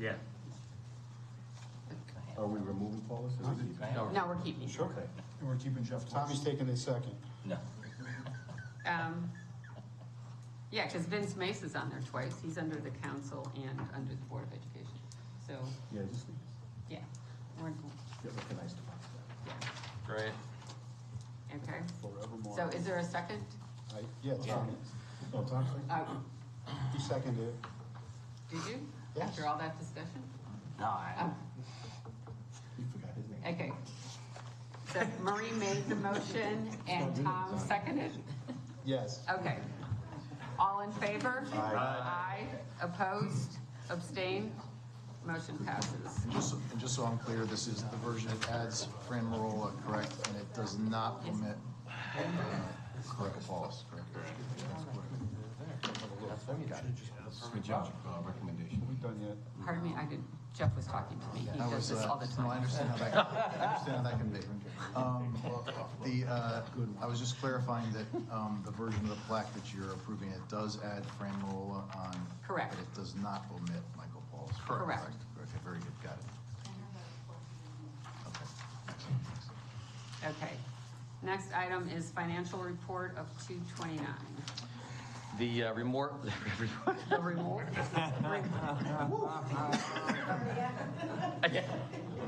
Yeah. Are we removing policies? No, we're keeping. it. Okay. And we're keeping Jeff close. Tommy's taking a second. No. Um, Yeah, because Vince Mace is on there twice. He's under the council and under the Board of Education. So, Yeah, just, yeah, we're, yeah, recognize the process yeah, Great. okay. forevermore. So is there a second? I- Yeah, Tommy, No, Tom, second? Uh, he seconded it. Did you? Yes. After all that discussion? No, I, Oh, you forgot his name. Okay. So Marie made the motion and Tom seconded? Yes. Okay. All in favor? Aye. Opposed? Abstained? Motion passes. Just, and just so I'm clear, this is the version that adds Fran Marola, correct? And it does not omit correct or false, correct? Good job. Uh, Recommendation. We've done yet. Pardon me, I didn't, Jeff was talking to me. He That does was, this uh, all the no, time. I understand how that, I understand how that can be. Um, The, uh, I was just clarifying that um, the version of the plaque that you're approving, it does add Fran Marola on. Correct. But it does not omit Michael Paul's. Correct. Okay, very good, got it. Okay. Okay. Next item is financial report of 229. The uh, remor The reward?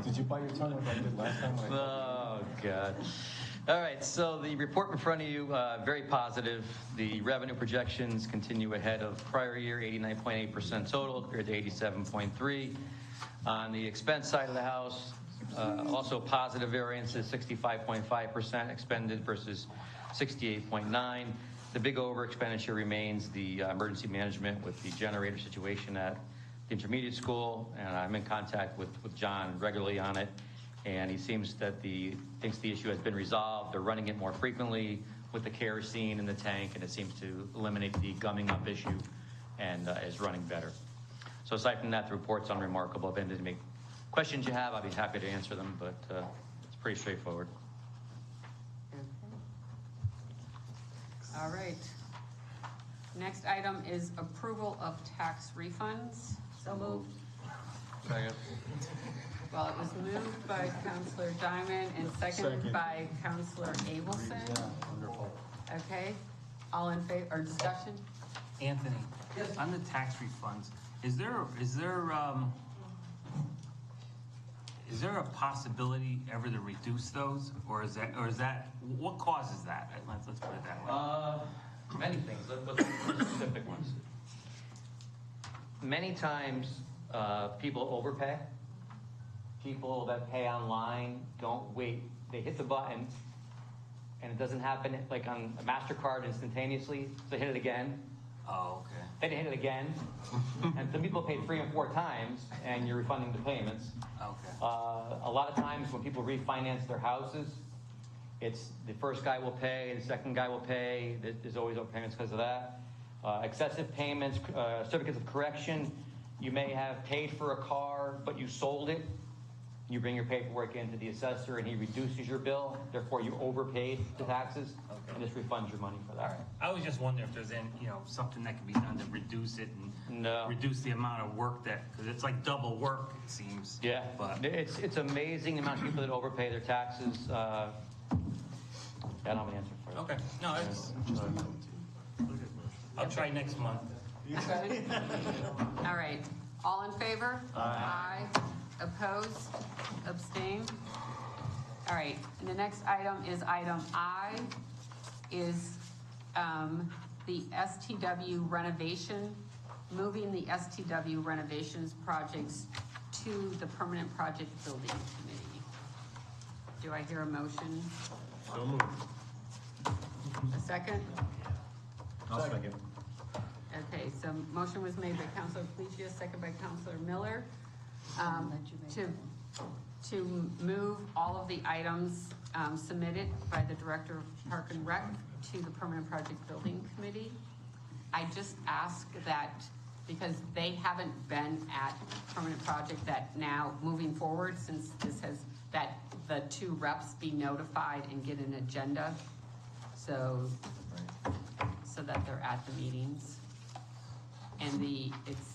Did you bite your tongue like I did last time? when I- Oh, God. All right, so the report in front of you, uh, very positive. The revenue projections continue ahead of prior year, 89.8% total compared to 87.3. On the expense side of the house, uh, also positive variances, 65.5% expended versus 68.9. The big over expenditure remains the uh, emergency management with the generator situation at the intermediate school, and I'm in contact with, with John regularly on it and he seems that the, thinks the issue has been resolved. They're running it more frequently with the kerosene in the tank, and it seems to eliminate the gumming up issue and uh, is running better. So aside from that, the report's unremarkable. If any make- questions you have, I'll be happy to answer them, but uh, it's pretty straightforward. All right. Next item is approval of tax refunds. So moved. Second. Well, it was moved by Counselor Diamond and seconded Second. by Counselor Abelson. Yeah, wonderful. Okay, all in favor, or discussion? Anthony, on the tax refunds, is there, is there, um, is there a possibility ever to reduce those? Or is that, or is that, what causes that? Let's, let's put it that way. Uh, many things, Let- let's look at specific ones. Many times, uh, people overpay. People that pay online don't wait. They hit the button, and it doesn't happen like on a Mastercard instantaneously. So they hit it again. Oh, okay. Then they hit it again, and some people paid three and four times, and you're refunding the payments. Okay. Uh, a lot of times when people refinance their houses, it's the first guy will pay, the second guy will pay. There- There's always overpayments because of that. Uh, excessive payments, uh, certificates of correction. You may have paid for a car, but you sold it. You bring your paperwork into the assessor, and he reduces your bill. Therefore, you overpaid the taxes, and just refunds your money for that. I was just wondering if there's any, you know, something that can be done to reduce it and No. reduce the amount of work that, because it's like double work, it seems. Yeah, But, it's it's amazing the amount of people that overpay their taxes. Uh, I don't have an answer for you. okay, no, it's, I'll try next month. Good? All right, all in favor? Aye. Opposed? Abstained? All right, and the next item is item I, is um, the STW renovation, moving the STW renovations projects to the Permanent Project Building Committee. Do I hear a motion? So moved. A second? I'll second. Okay, so motion was made by Counselor Felicia, second by Counselor Miller, um, to, to move all of the items um, submitted by the Director of Park and Rec to the Permanent Project Building Committee. I just ask that, because they haven't been at Permanent Project, that now, moving forward, since this has, that the two reps be notified and get an agenda, so so that they're at the meetings. And the, it's